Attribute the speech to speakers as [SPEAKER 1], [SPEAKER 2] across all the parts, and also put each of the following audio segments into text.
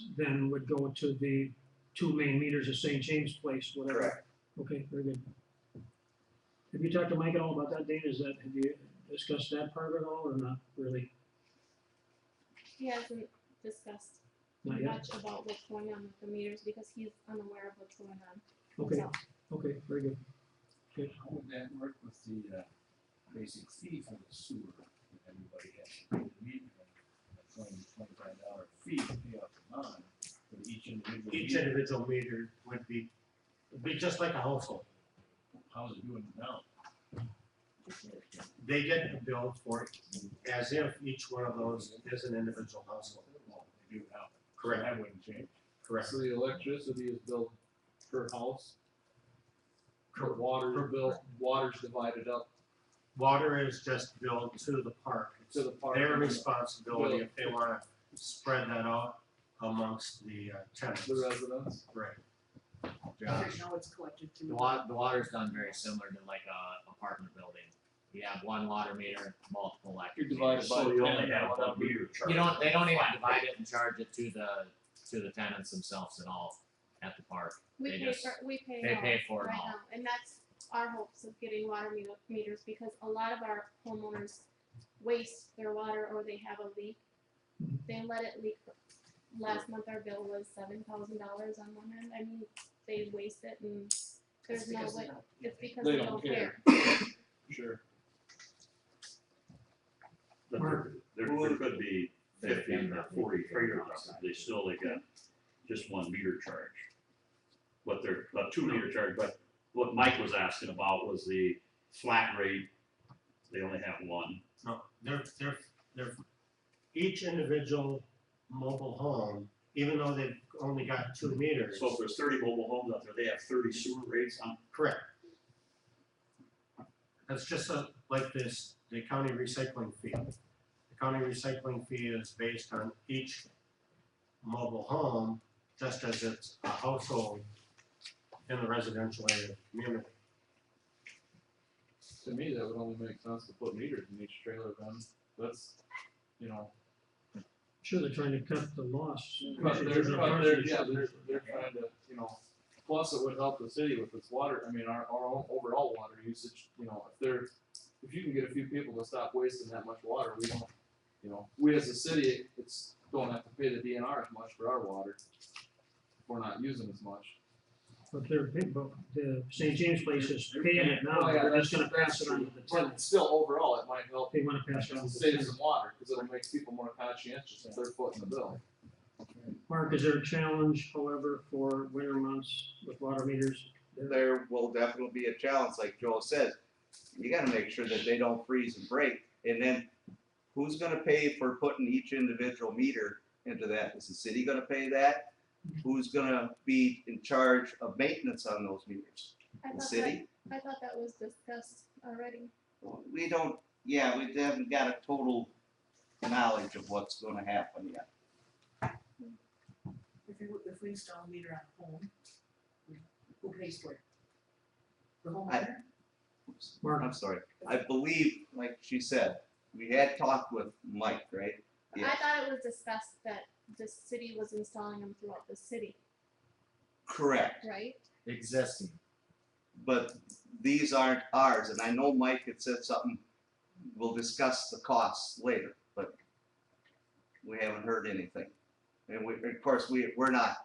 [SPEAKER 1] meters then would go to the two main meters of St. James Place, whatever.
[SPEAKER 2] Correct.
[SPEAKER 1] Okay, very good. Have you talked to Mike at all about that, Dana? Is that, have you discussed that part at all or not really?
[SPEAKER 3] He hasn't discussed
[SPEAKER 1] Not yet?
[SPEAKER 3] much about what's going on with the meters because he's unaware of what's going on.
[SPEAKER 1] Okay,
[SPEAKER 3] So,
[SPEAKER 1] okay, very good.
[SPEAKER 4] How would that work with the, uh, basic fee for the sewer? If everybody has to pay the meter, a twenty, twenty-five dollar fee to pay off the bond for each individual
[SPEAKER 5] Each
[SPEAKER 4] meter.
[SPEAKER 5] individual meter would be, it'd be just like a household.
[SPEAKER 4] How's it doing now?
[SPEAKER 5] They get billed for it as if each one of those is an individual household.
[SPEAKER 4] Well, they do now.
[SPEAKER 5] Correct.
[SPEAKER 4] That wouldn't change.
[SPEAKER 5] Correct.
[SPEAKER 6] So the electricity is billed per house? Per water
[SPEAKER 5] Per-
[SPEAKER 6] bill, water's divided up
[SPEAKER 5] Water is just billed to the park. It's
[SPEAKER 6] to the park?
[SPEAKER 5] Their responsibility if they wanna spread that out amongst the uh, tenants.
[SPEAKER 6] The residents?
[SPEAKER 5] Right.
[SPEAKER 7] Right now it's collected
[SPEAKER 8] The
[SPEAKER 7] through.
[SPEAKER 8] wa- the water's done very similar to like a apartment building. You have one water meter, multiple
[SPEAKER 6] You're
[SPEAKER 8] electric
[SPEAKER 6] divided
[SPEAKER 8] meters.
[SPEAKER 6] by
[SPEAKER 4] So you only
[SPEAKER 6] ten,
[SPEAKER 4] have
[SPEAKER 6] whatever.
[SPEAKER 4] one meter
[SPEAKER 8] You
[SPEAKER 4] charge.
[SPEAKER 8] don't, they don't even divide it and charge it to the, to the tenants themselves at all at the park.
[SPEAKER 3] we
[SPEAKER 8] They
[SPEAKER 3] pay
[SPEAKER 8] just-
[SPEAKER 3] for, we pay
[SPEAKER 8] They
[SPEAKER 3] now,
[SPEAKER 8] pay for it
[SPEAKER 3] right
[SPEAKER 8] all.
[SPEAKER 3] now, and that's our hopes of getting water me- meters because a lot of our homeowners waste their water or they have a leak.
[SPEAKER 1] Mm-hmm.
[SPEAKER 3] They let it leak. Last month our bill was seven thousand dollars on one end. I mean, they waste it and
[SPEAKER 7] It's
[SPEAKER 3] there's no
[SPEAKER 7] because
[SPEAKER 3] way,
[SPEAKER 7] of
[SPEAKER 3] it's because
[SPEAKER 6] They
[SPEAKER 3] they
[SPEAKER 6] don't
[SPEAKER 3] don't
[SPEAKER 6] care.
[SPEAKER 3] care.
[SPEAKER 6] Sure.
[SPEAKER 9] But
[SPEAKER 1] Mark.
[SPEAKER 9] there, there, there could be fifteen or forty houses, they still, they got just one meter charge. What they're, a two meter charge, but what Mike was asking about was the flat rate, they only have one.
[SPEAKER 5] No, they're, they're, they're, each individual mobile home, even though they've only got two meters.
[SPEAKER 9] So if there's thirty mobile homes out there, they have thirty sewer rates Um, on,
[SPEAKER 5] Correct. That's just a, like this, the county recycling fee. The county recycling fee is based on each mobile home, just as it's a household in the residential area of the community.
[SPEAKER 6] To me, that would only make sense to put meters in each trailer then, that's, you know.
[SPEAKER 1] Sure, they're trying to cut the loss.
[SPEAKER 6] But they're, but they're, yeah, they're, they're trying to, you know, plus it would help the city with its water, I mean, our, our own overall water usage, you know, if they're, if you can get a few people to stop wasting that much water, we don't, you know, we as a city, it's, don't have to pay the DNR as much for our water. if We're not using as much.
[SPEAKER 1] But they're, big, but the St. James Place is paying it now,
[SPEAKER 6] Oh, yeah,
[SPEAKER 1] they're just
[SPEAKER 6] that's-
[SPEAKER 1] gonna pass it on to the
[SPEAKER 6] that's true. But
[SPEAKER 1] tenants.
[SPEAKER 6] still, overall, it might help
[SPEAKER 1] They wanna pass it on to the
[SPEAKER 6] save
[SPEAKER 1] tenants.
[SPEAKER 6] some water, cause it'll make people more conscientious if they're footing the bill.
[SPEAKER 1] Mark, is there a challenge, however, for winter months with water meters?
[SPEAKER 2] There will definitely be a challenge, like Joel says. You gotta make sure that they don't freeze and break, and then who's gonna pay for putting each individual meter into that? Is the city gonna pay that? Who's gonna be in charge of maintenance on those meters?
[SPEAKER 3] I
[SPEAKER 2] The
[SPEAKER 3] thought
[SPEAKER 2] city?
[SPEAKER 3] that, I thought that was discussed already.
[SPEAKER 2] We don't, yeah, we haven't got a total knowledge of what's gonna happen yet.
[SPEAKER 7] If you, if we install a meter on home, who pays for it? The homeowner?
[SPEAKER 1] Mark,
[SPEAKER 2] I'm sorry, I believe, like she said, we had talked with Mike, right?
[SPEAKER 3] I
[SPEAKER 2] Yes.
[SPEAKER 3] thought it was discussed that the city was installing them throughout the city,
[SPEAKER 2] Correct,
[SPEAKER 3] right?
[SPEAKER 8] Existing.
[SPEAKER 2] but these aren't ours, and I know Mike had said something, we'll discuss the costs later, but we haven't heard anything. And we, of course, we, we're not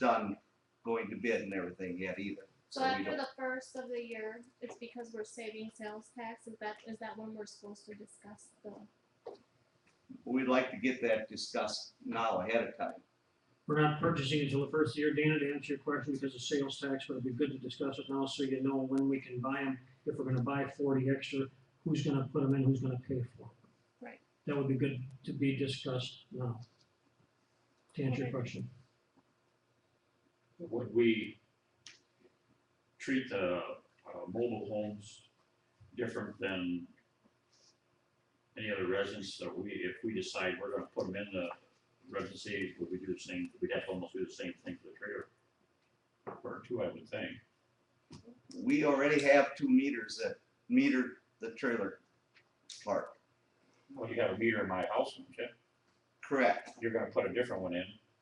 [SPEAKER 2] done going to bid and everything yet either,
[SPEAKER 3] So
[SPEAKER 2] so we
[SPEAKER 3] after
[SPEAKER 2] don't,
[SPEAKER 3] the first of the year, it's because we're saving sales tax, is that, is that when we're supposed to discuss the?
[SPEAKER 2] we'd like to get that discussed now ahead of time.
[SPEAKER 1] we're not purchasing until the first year, Dana, to answer your question, because of sales tax, but it'd be good to discuss it now, so you know when we can buy them. If we're gonna buy forty extra, who's gonna put them in, who's gonna pay for them?
[SPEAKER 3] Right.
[SPEAKER 1] That would be good to be discussed now. To answer your
[SPEAKER 3] Okay.
[SPEAKER 1] question,
[SPEAKER 9] would we treat the, uh, mobile homes different than any other residents that we, if we decide we're gonna put them in the residency, would we do the same, we'd have to almost do the same thing for the trailer? Or two, I would think.
[SPEAKER 2] We already have two meters that meter the trailer park,
[SPEAKER 9] Well, you got a meter in my house, don't you?
[SPEAKER 2] correct?
[SPEAKER 9] You're gonna put a different one in.